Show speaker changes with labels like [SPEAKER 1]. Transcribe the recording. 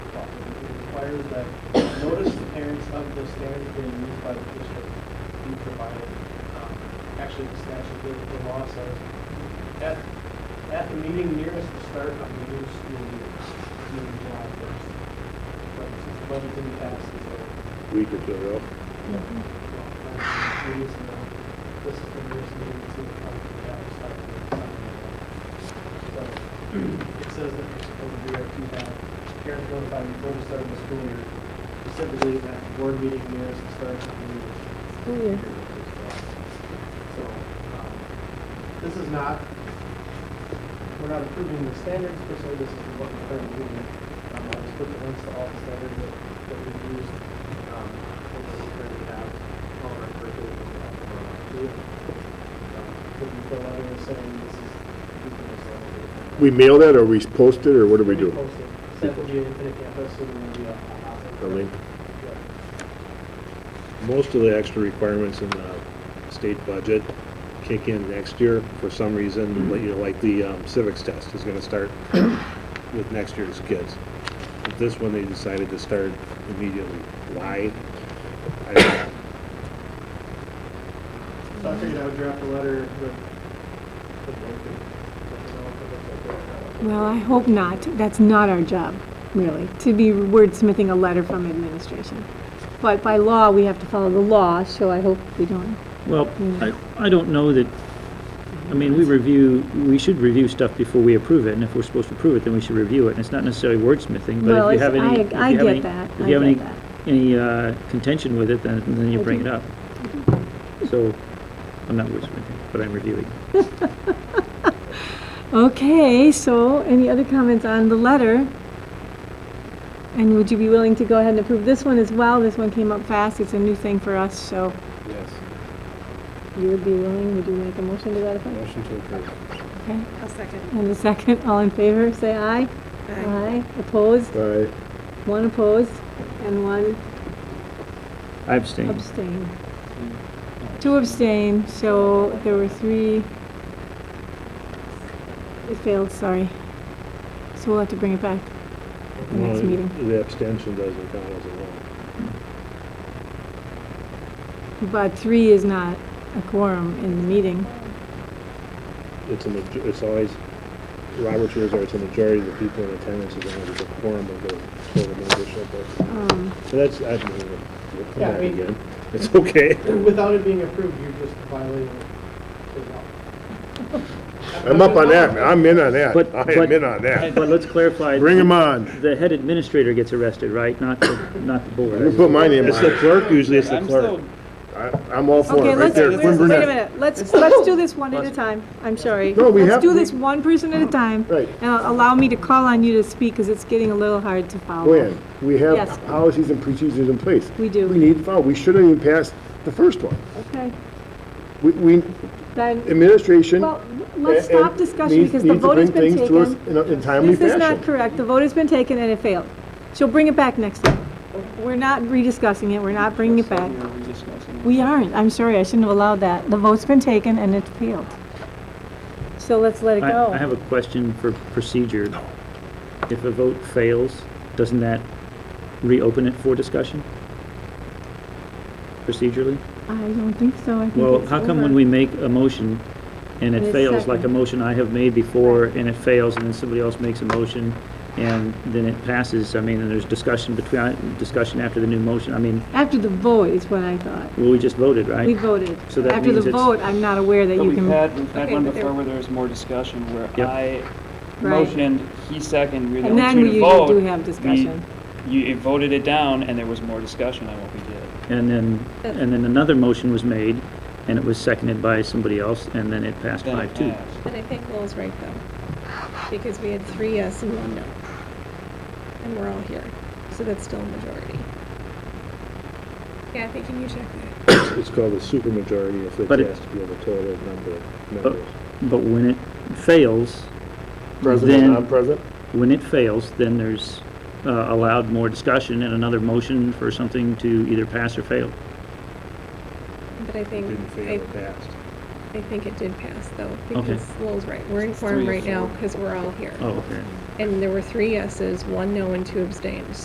[SPEAKER 1] requires that notice to parents of the standards being used by the district be provided. Um, Actually, the statute, the- the law says, at, at the meeting nearest the start of the new school year, meaning July first. But since the budget didn't pass, it's
[SPEAKER 2] week or two ago.
[SPEAKER 1] a, well, it is, uh, this is the nearest meeting to the public, yeah, start of the summer. So, it says that you're supposed to be at two thousand, parents notified before the start of the school year, specifically that board meeting nearest the start of the year.
[SPEAKER 3] School year.
[SPEAKER 1] So, um, this is not, we're not approving the standards, per se, this is what we're approving. Um, I just put the links to all the standards that, that we've used, um, and that we currently have, all our curriculum that we have for our field. Um, Could you fill out here saying this is, these are the standards?
[SPEAKER 2] We mail that, or we post it, or what do we do?
[SPEAKER 1] Repost it. Send it to your Infinite Campus, and then we, uh,
[SPEAKER 2] A link?
[SPEAKER 1] Yeah.
[SPEAKER 2] Most of the extra requirements in the state budget kick in next year for some reason, like, you know, like the um, civics test is gonna start with next year's kids. But This one, they decided to start immediately. Why? I don't know.
[SPEAKER 1] So I figured I would draft a letter with, with everything. Let me know if it looks like
[SPEAKER 3] Well, I hope not. That's not our job, really, to be wordsmithing a letter from administration. But by law, we have to follow the law, so I hope we don't.
[SPEAKER 4] Well, I, I don't know that, I mean, we review, we should review stuff before we approve it, and if we're supposed to approve it, then we should review it, and it's not necessarily wordsmithing,
[SPEAKER 3] Well,
[SPEAKER 4] but if you
[SPEAKER 3] it's-
[SPEAKER 4] have any.
[SPEAKER 3] I-
[SPEAKER 4] if you
[SPEAKER 3] I
[SPEAKER 4] have
[SPEAKER 3] get
[SPEAKER 4] any-
[SPEAKER 3] that.
[SPEAKER 4] If
[SPEAKER 3] I
[SPEAKER 4] you have any,
[SPEAKER 3] get that.
[SPEAKER 4] any uh, contention with it, then, then you
[SPEAKER 3] I
[SPEAKER 4] bring it
[SPEAKER 3] do.
[SPEAKER 4] up. So, I'm not wordsmithing, but I'm reviewing.
[SPEAKER 3] Okay, so any other comments on the letter? And would you be willing to go ahead and approve this one as well? This one came up fast. It's a new thing for us, so
[SPEAKER 2] Yes,
[SPEAKER 3] you would be willing, would you make a motion to that effect?
[SPEAKER 2] motion to approve.
[SPEAKER 3] Okay.
[SPEAKER 5] I'll second.
[SPEAKER 3] And the second, all in favor, say aye. Aye. Opposed?
[SPEAKER 2] Aye.
[SPEAKER 3] One opposed and one
[SPEAKER 4] I abstain.
[SPEAKER 3] Abstain. Two abstain, so there were three. It failed, sorry. So we'll have to bring it back. The next meeting.
[SPEAKER 2] The abstention doesn't count as a vote.
[SPEAKER 3] But three is not a quorum in the meeting.
[SPEAKER 2] It's a, maj- it's always, Robert's rules are it's a majority of the people in attendance is going to be the quorum of the total membership. but-
[SPEAKER 3] Um,
[SPEAKER 2] So that's, I don't know, we'll come
[SPEAKER 1] Yeah, I
[SPEAKER 2] back
[SPEAKER 1] mean-
[SPEAKER 2] again. It's okay.
[SPEAKER 1] it. Without it being approved, you're just violating the law.
[SPEAKER 2] I'm up on that, man. I'm in on that.
[SPEAKER 4] But-
[SPEAKER 2] I
[SPEAKER 4] but-
[SPEAKER 2] am in on that.
[SPEAKER 4] But let's clarify.
[SPEAKER 2] Bring him on.
[SPEAKER 4] The head administrator gets arrested, right? Not, the not the
[SPEAKER 2] Let me
[SPEAKER 4] board.
[SPEAKER 2] put my name
[SPEAKER 4] It's
[SPEAKER 2] on
[SPEAKER 4] the
[SPEAKER 2] it.
[SPEAKER 4] clerk, usually it's the
[SPEAKER 6] I'm
[SPEAKER 4] clerk.
[SPEAKER 6] still
[SPEAKER 2] I- I'm all for
[SPEAKER 3] Okay,
[SPEAKER 2] it, right
[SPEAKER 3] let's,
[SPEAKER 2] there.
[SPEAKER 3] wait
[SPEAKER 2] Quinn
[SPEAKER 3] a
[SPEAKER 2] Burnett.
[SPEAKER 3] minute, let's, let's do this one at a time. I'm sorry.
[SPEAKER 2] No, we have-
[SPEAKER 3] Let's do this one person at a time.
[SPEAKER 2] Right.
[SPEAKER 3] And allow me to call on you to speak, because it's getting a little hard to follow.
[SPEAKER 2] Gwen, we
[SPEAKER 3] Yes.
[SPEAKER 2] have policies and procedures in place.
[SPEAKER 3] We do.
[SPEAKER 2] We need to follow. We shouldn't even pass the first one.
[SPEAKER 3] Okay,
[SPEAKER 2] We, we,
[SPEAKER 3] then,
[SPEAKER 2] administration.
[SPEAKER 3] well, let's
[SPEAKER 2] a- and
[SPEAKER 3] stop discussion,
[SPEAKER 2] needs-
[SPEAKER 3] because the
[SPEAKER 2] needs to
[SPEAKER 3] vote has
[SPEAKER 2] bring
[SPEAKER 3] been
[SPEAKER 2] things to us
[SPEAKER 3] taken.
[SPEAKER 2] In a in timely
[SPEAKER 3] This is not
[SPEAKER 2] fashion.
[SPEAKER 3] correct. The vote has been taken and it failed. She'll bring it back next time. We're not rediscussing it. We're not bringing it back. We aren't. I'm sorry. I shouldn't have allowed that. The vote's been taken and it failed. So let's let it
[SPEAKER 4] I, I
[SPEAKER 3] go.
[SPEAKER 4] have a question for procedure. If a vote fails, doesn't that reopen it for discussion? Procedurally?
[SPEAKER 3] I don't think so. I think
[SPEAKER 4] Well,
[SPEAKER 3] it's
[SPEAKER 4] how come when
[SPEAKER 3] over.
[SPEAKER 4] we make a motion
[SPEAKER 3] And
[SPEAKER 4] and it
[SPEAKER 3] it's
[SPEAKER 4] fails, like a
[SPEAKER 3] second.
[SPEAKER 4] motion I have made before, and it fails, and then somebody else makes a motion, and then it passes, I mean, and there's discussion between, discussion after the new motion, I mean,
[SPEAKER 3] After the vote is what I thought.
[SPEAKER 4] well, we just voted,
[SPEAKER 3] We
[SPEAKER 4] right?
[SPEAKER 3] voted.
[SPEAKER 4] So that
[SPEAKER 3] After
[SPEAKER 4] means
[SPEAKER 3] the
[SPEAKER 4] it's-
[SPEAKER 3] vote, I'm not aware that
[SPEAKER 6] But
[SPEAKER 3] you
[SPEAKER 6] we've had,
[SPEAKER 3] can.
[SPEAKER 6] we've had
[SPEAKER 3] Okay,
[SPEAKER 6] one
[SPEAKER 3] but there-
[SPEAKER 6] before where there was more discussion, where
[SPEAKER 4] Yep.
[SPEAKER 6] I
[SPEAKER 3] Right.
[SPEAKER 6] motioned, he seconded, we were
[SPEAKER 3] And
[SPEAKER 6] the
[SPEAKER 3] then
[SPEAKER 6] only two
[SPEAKER 3] we
[SPEAKER 6] to
[SPEAKER 3] usually
[SPEAKER 6] vote.
[SPEAKER 3] do have discussion.
[SPEAKER 6] We- You voted it down, and there was more discussion on what we did.
[SPEAKER 4] And then,
[SPEAKER 3] Uh,
[SPEAKER 4] and then another motion was made, and it was seconded by somebody else, and then it passed
[SPEAKER 6] Then it
[SPEAKER 4] five-two.
[SPEAKER 6] passed.
[SPEAKER 5] And I think Lowell's right, though, because we had three yes and one no. And we're all here, so that's still a majority. Yeah, I think you need to check that.
[SPEAKER 2] It's called a supermajority if it
[SPEAKER 4] But it-
[SPEAKER 2] has to be of a total number of
[SPEAKER 4] But,
[SPEAKER 2] members.
[SPEAKER 4] but when it fails,
[SPEAKER 2] President, uh,
[SPEAKER 4] then-
[SPEAKER 2] non-president?
[SPEAKER 4] when it fails, then there's uh, allowed more discussion and another motion for something to either pass or fail.
[SPEAKER 5] But I think,
[SPEAKER 2] Didn't fail,
[SPEAKER 5] I,
[SPEAKER 2] it passed.
[SPEAKER 5] I think it did pass, though,
[SPEAKER 4] Okay.
[SPEAKER 5] because Lowell's right. We're in
[SPEAKER 6] three
[SPEAKER 5] quorum
[SPEAKER 6] to
[SPEAKER 5] right now,
[SPEAKER 6] four.
[SPEAKER 5] Oh, because we're all here.
[SPEAKER 4] Oh, okay.
[SPEAKER 5] And there were three yeses, one no, and two abstains,